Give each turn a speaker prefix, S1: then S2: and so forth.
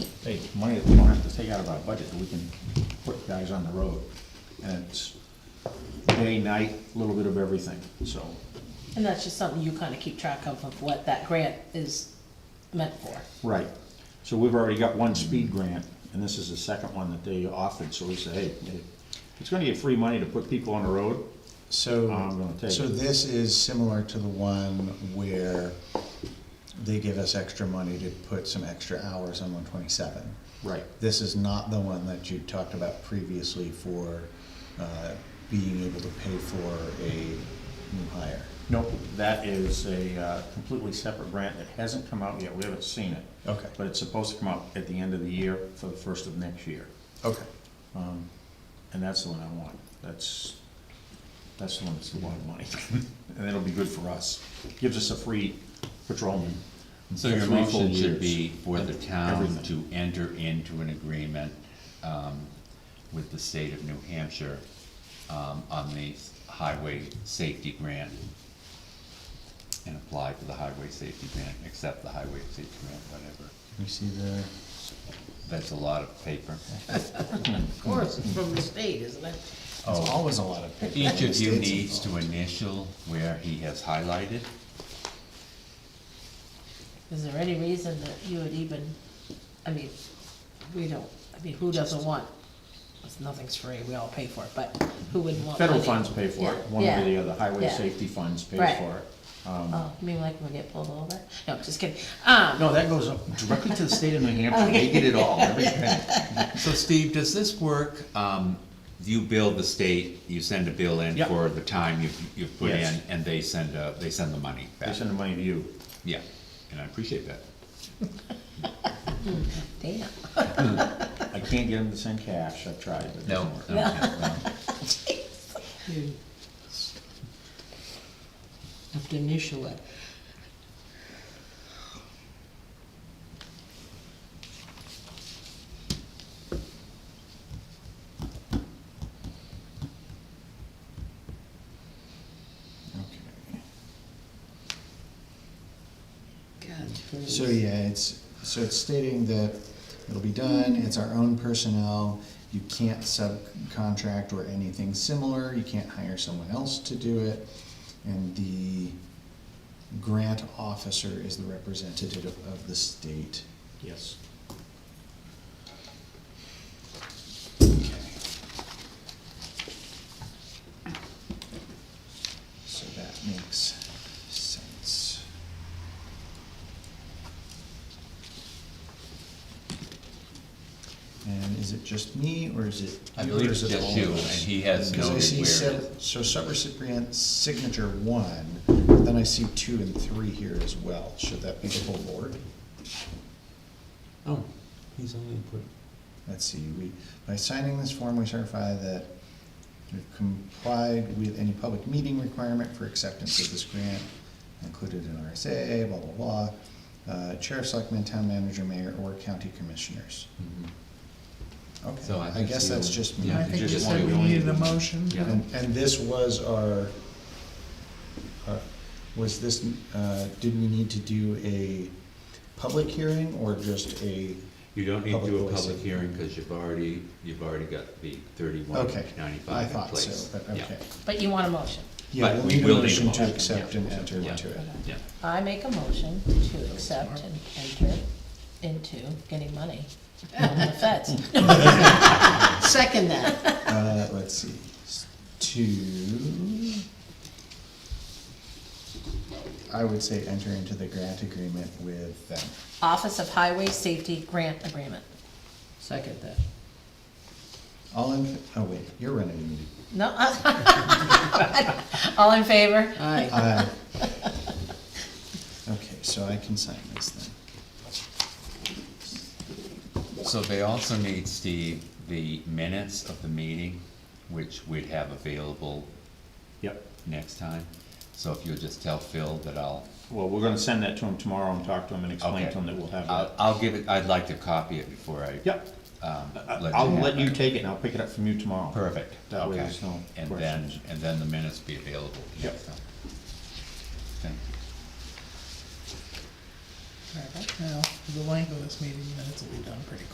S1: hey, money that we don't have to take out of our budget, that we can put guys on the road. And it's day, night, a little bit of everything, so,
S2: And that's just something you kind of keep track of, of what that grant is meant for.
S1: right. So we've already got one speed grant, and this is the second one that they offered, so we say, hey, it's gonna get free money to put people on the road. I'm
S3: So,
S1: gonna take
S3: so
S1: it.
S3: this is similar to the one where they give us extra money to put some extra hours on one twenty-seven.
S1: Right.
S3: This is not the one that you talked about previously for, uh, being able to pay for a new hire.
S1: Nope, that is a uh, completely separate grant that hasn't come out yet, we haven't seen it.
S3: Okay.
S1: But it's supposed to come out at the end of the year for the first of next year.
S3: Okay.
S1: Um, And that's the one I want. That's, that's the one that's a lot of money. And that'll be good for us. Gives us a free patrolman.
S4: So your
S1: Three full
S4: motion should
S1: years.
S4: be for the town to
S1: Everything.
S4: enter into an agreement um, with the state of New Hampshire um, on the highway safety grant and apply for the highway safety grant, accept the highway safety grant, whatever.
S3: You see the,
S4: That's a lot of paper.
S2: Of course, it's from the state, isn't it?
S3: it's
S1: Oh.
S3: always a lot of. paper when
S4: Each
S3: the
S4: of you
S3: state's
S4: needs to
S3: involved.
S4: initial where he has highlighted.
S2: Is there any reason that you would even, I mean, we don't, I mean, who doesn't want, it's- nothing's free, we all pay for it, but who wouldn't want money?
S1: Federal funds pay for it, one
S2: Yeah,
S1: way or the other. Highway
S2: yeah.
S1: safety funds pay
S2: Right.
S1: for it. Um,
S2: Oh, you mean like when we get pulled over? No, just kidding. Um,
S1: No, that goes up directly to the state of New Hampshire. They get it all, every penny.
S4: So Steve, does this work, um, you bill the state, you send a bill in
S1: Yep.
S4: for the time you've, you've put
S1: Yes.
S4: in, and they send a, they send the money
S1: They
S4: back?
S1: send the money to you.
S4: Yeah, and I appreciate that.
S2: damn,
S1: I can't get them to send cash. I've tried, but it doesn't work.
S5: You Have to initial it. God.
S3: So, yeah, it's, so it's stating that it'll be done, it's our own personnel, you can't subcontract or anything similar, you can't hire someone else to do it, and the grant officer is the representative of the state.
S1: Yes.
S3: Okay. So that makes sense. And is it just me, or is it?
S4: I
S3: you, or
S4: believe
S3: is
S4: it's
S3: it
S4: just
S3: all of
S4: you,
S3: us?
S4: and he has
S3: Because I
S4: noted
S3: see
S4: where it
S3: sev- So subrecipient signature one, but then I see two and three here as well, should that be the whole board?
S5: Oh, he's only put.
S3: Let's see, we, by signing this form, we certify that we've complied with any public meeting requirement for acceptance of this grant, included in RSA, blah, blah, blah. Uh, Chair of Selectmen, Town Manager, Mayor, or County Commissioners. Okay,
S4: Hmm. So I
S3: I
S4: think
S3: guess
S4: you-
S3: that's just me.
S4: yeah, I
S6: I
S3: And,
S4: you
S6: think you
S4: just
S6: said
S4: want
S6: we
S4: to go
S6: needed
S4: in.
S6: a motion.
S4: Yeah.
S3: and this was our, our- was this, uh, did we need to do a public hearing or just a,
S4: You don't need to
S3: Public
S4: do a
S3: voice.
S4: public hearing, cause you've already, you've already got the thirty-one
S3: okay? I
S4: ninety-five in
S3: thought
S4: place.
S3: so, but
S4: Yeah.
S3: okay.
S2: but you want a motion.
S3: Yeah,
S4: But
S3: we'll
S4: we
S3: need a
S4: will need a
S3: motion to
S4: motion,
S3: accept
S4: yeah.
S3: and enter
S4: Yeah.
S3: into it.
S4: Yeah,
S2: I make a motion to accept and enter into getting money from the feds.
S5: Second that.
S3: Uh, let's see, s- two. I would say enter into the grant agreement with them.
S2: Office of Highway Safety Grant Agreement.
S5: Second that.
S3: All in, oh wait, you're running the meeting.
S2: No? All in favor?
S5: Aye.
S3: Uh, Okay, so I can sign this then.
S4: so they also need, Steve, the minutes of the meeting, which we'd have available
S1: Yep.
S4: next time. So if you'll just tell Phil that I'll,
S1: Well, we're gonna send that to him tomorrow and talk to him and explain
S4: Okay. Uh,
S1: to him that we'll have
S4: I'll,
S1: that.
S4: I'll give it, I'd like to copy it before I.
S1: Yep.
S4: um,
S1: I-
S4: let
S1: I'll
S4: have
S1: let you
S4: it.
S1: take it and I'll pick it up from you tomorrow.
S4: Perfect,
S1: That way
S4: okay.
S1: there's no
S4: And then,
S1: questions.
S4: and then the minutes be available
S1: Yep.
S4: next time. Thank you.
S6: Well, the length of this meeting minutes will be done pretty quick.